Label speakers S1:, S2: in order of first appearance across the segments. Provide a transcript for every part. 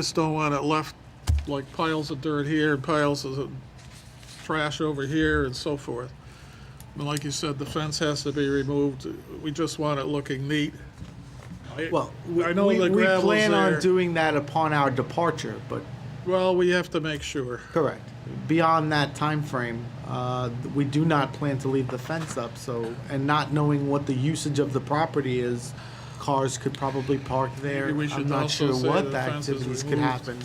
S1: Just don't want it left like piles of dirt here, piles of trash over here and so forth. And like you said, the fence has to be removed. We just want it looking neat. I-
S2: Well,
S1: I know
S2: we,
S1: the
S2: we
S1: gravel's
S2: plan on
S1: there.
S2: doing that upon our departure, but
S1: Well, we have to make sure.
S2: correct. Beyond that time frame, uh, we do not plan to leave the fence up. So, and not knowing what the usage of the property is, cars could probably park there.
S1: Maybe we should
S2: I'm not
S1: also
S2: sure
S1: say
S2: what
S1: the
S2: the
S1: fence is
S2: activities could
S1: removed.
S2: happen.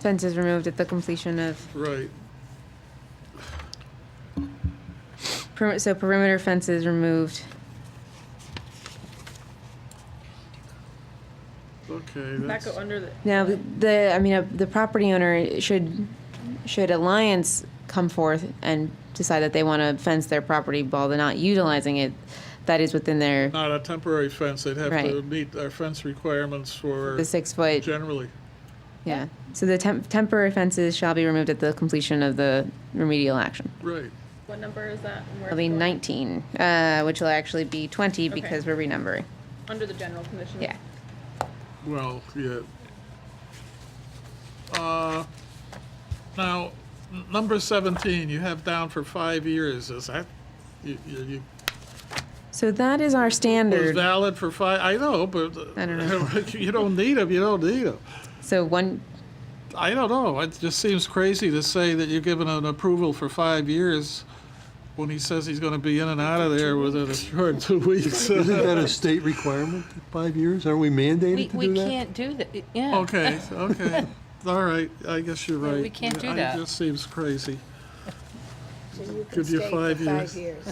S3: Fence is removed at the completion of,
S1: Right.
S3: peri- so perimeter fence is removed.
S1: Okay.
S4: Not
S1: that's-
S4: go under the,
S3: Now, the, I mean, uh, the property owner should, should Alliance come forth and decide that they want to fence their property while they're not utilizing it, that is within their,
S1: Not a temporary fence. They'd have to
S3: Right.
S1: meet our fence requirements for
S3: the six foot,
S1: generally.
S3: yeah. So the temp, temporary fences shall be removed at the completion of the remedial action.
S1: Right.
S4: what number is that? and where
S3: It'll be
S4: it's going?
S3: nineteen, uh, which will actually be twenty
S4: Okay.
S3: because we're renumbering,
S4: Under the general conditions.
S3: yeah.
S1: Well, yeah. Uh, Now, n- number 17, you have down for five years, is that, you, you, you-
S3: So that is our
S1: it's
S3: standard,
S1: valid for five, I know, but. uh,
S3: I don't know.
S1: You don't need them, you don't need them.
S3: so one,
S1: I don't know, it just seems crazy to say that you're giving an approval for five years when he says he's gonna be in and out of there within a short two weeks.
S5: Isn't that a state requirement, five years? Aren't we
S6: We,
S5: mandated to
S6: we
S5: do that?
S6: can't do that, yeah.
S1: Okay, okay, all right, I guess you're right.
S6: we can't do
S1: I-
S6: that.
S1: It just seems crazy.
S7: So you can
S1: Give you
S7: stay
S1: five
S7: for five
S1: years.
S7: years.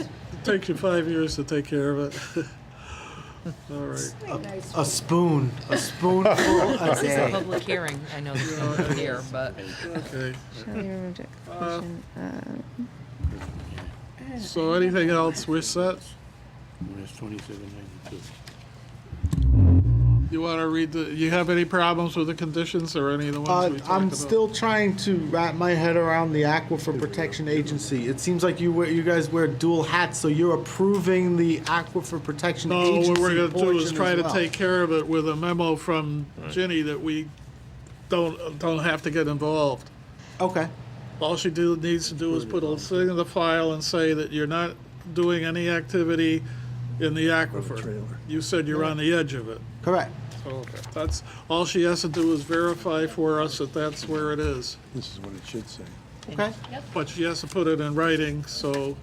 S1: Takes you five years to take care of it. All right.
S7: Pretty nice.
S2: A spoon, a spoonful a
S6: It's a
S2: day.
S6: public hearing, I know there's no one here, but
S1: Okay.
S3: shall be removed at completion of.
S1: So anything else? We're set.
S8: Minus twenty-seven ninety-two.
S1: You want to read the? You have any problems with the conditions or any of the ones
S2: Uh,
S1: we talked
S2: I'm
S1: about?
S2: still trying to wrap my head around the Aquifer Protection Agency. It seems like you wear, you guys wear dual hats, so you're approving the Aquifer Protection
S1: No,
S2: Agency
S1: Oh, what we're going to do is
S2: portion
S1: try
S2: as
S1: to
S2: well.
S1: take care of it with a memo from Ginny that we don't don't have to get involved.
S2: Okay,
S1: All she do, needs to do is put a thing in the file and say that you're not doing any activity in the aquifer. You said you're on the edge of it.
S2: correct.
S1: That's, all she has to do is verify for us that that's where it is.
S5: This is what it should say.
S2: Okay,
S1: But she has to put it in writing, so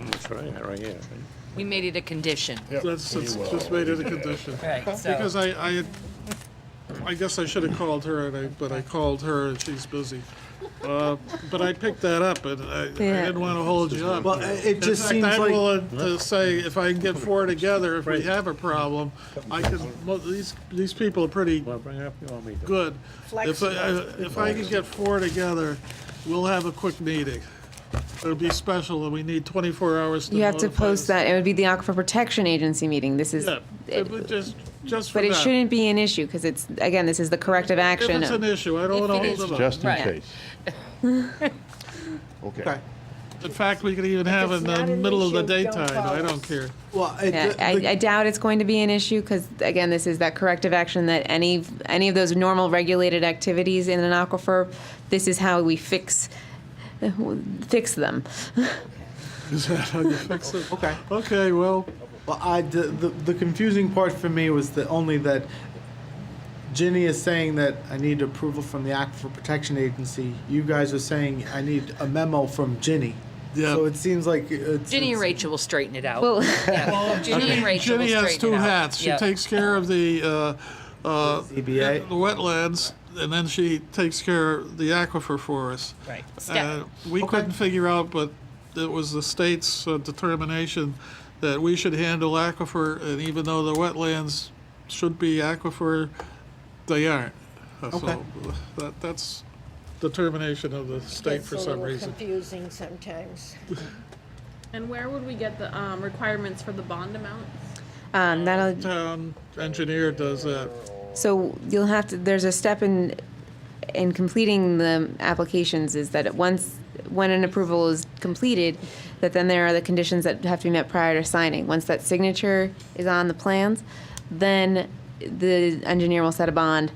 S8: That's right, right here.
S6: we made it a condition.
S1: that's, that's just made it a condition.
S6: Right,
S1: Because I, I, had- I guess I should have called her, and I, but I called her and she's busy. Uh, But I picked that up and I, I
S3: Yeah.
S1: didn't want to hold you up.
S2: well, it- it
S1: In
S2: just
S1: fact, uh,
S2: seems
S1: I'm
S2: like,
S1: willing to say, if I can get four together, if we have a problem, I can, well, these, these people are pretty
S8: Want to bring it up? You want me to?
S1: good. If I, if I can get four together, we'll have a quick meeting. It'll be special, and we need 24 hours to
S3: You have to
S1: notify
S3: post
S1: us.
S3: that, it would be the Aquifer Protection Agency meeting, this is,
S1: Yeah, it would
S3: it-
S1: just, just for
S3: but
S1: that.
S3: it shouldn't be an issue, because it's, again, this is the corrective
S1: If
S3: action
S1: it's an
S3: of,
S1: issue, I don't want
S6: If
S1: to hold
S6: it is-
S1: them up.
S8: Just in
S6: Right.
S8: case.
S2: okay.
S1: In fact, we could even have it in
S7: it's not
S1: the
S7: an
S1: middle of the
S7: issue, don't
S1: daytime, I
S7: call
S1: don't
S7: us.
S1: care.
S2: Well, it-
S3: yeah,
S2: the-
S3: I,
S2: the-
S3: I doubt it's going to be an issue, because, again, this is that corrective action that any, any of those normal regulated activities in an aquifer, this is how we fix, fix them.
S1: Is that how you fix it?
S2: okay.
S1: Okay, well,
S2: Well, I, the, the, the confusing part for me was that only that Ginny is saying that I need approval from the Aquifer Protection Agency. You guys are saying I need a memo from Ginny.
S1: Yeah.
S2: So it seems like it's.
S6: Ginny and
S2: it's-
S6: Rachel will straighten it out.
S3: Well,
S6: Yeah. Ginny and Rachel will
S1: Jenny
S6: straighten it out.
S1: has two hats. She
S6: Yeah.
S1: takes care of the, uh, uh,
S2: ZBA.
S1: the wetlands, and then she takes care of the aquifer for us.
S6: Right.
S1: Uh,
S6: Step.
S1: We couldn't figure out, but it was the state's uh, determination that we should handle aquifer, and even though the wetlands should be aquifer, they aren't. Uh,
S2: Okay.
S1: So that, that's determination of the state
S7: It's
S1: for
S7: a
S1: some
S7: little
S1: reason.
S7: confusing sometimes.
S4: And where would we get the, um, requirements for the bond amounts?
S3: um, that'll,
S1: Town engineer does that.
S3: So you'll have to, there's a step in, in completing the applications is that it once, when an approval is completed, that then there are the conditions that have to be met prior to signing. Once that signature is on the plans, then the engineer will set a bond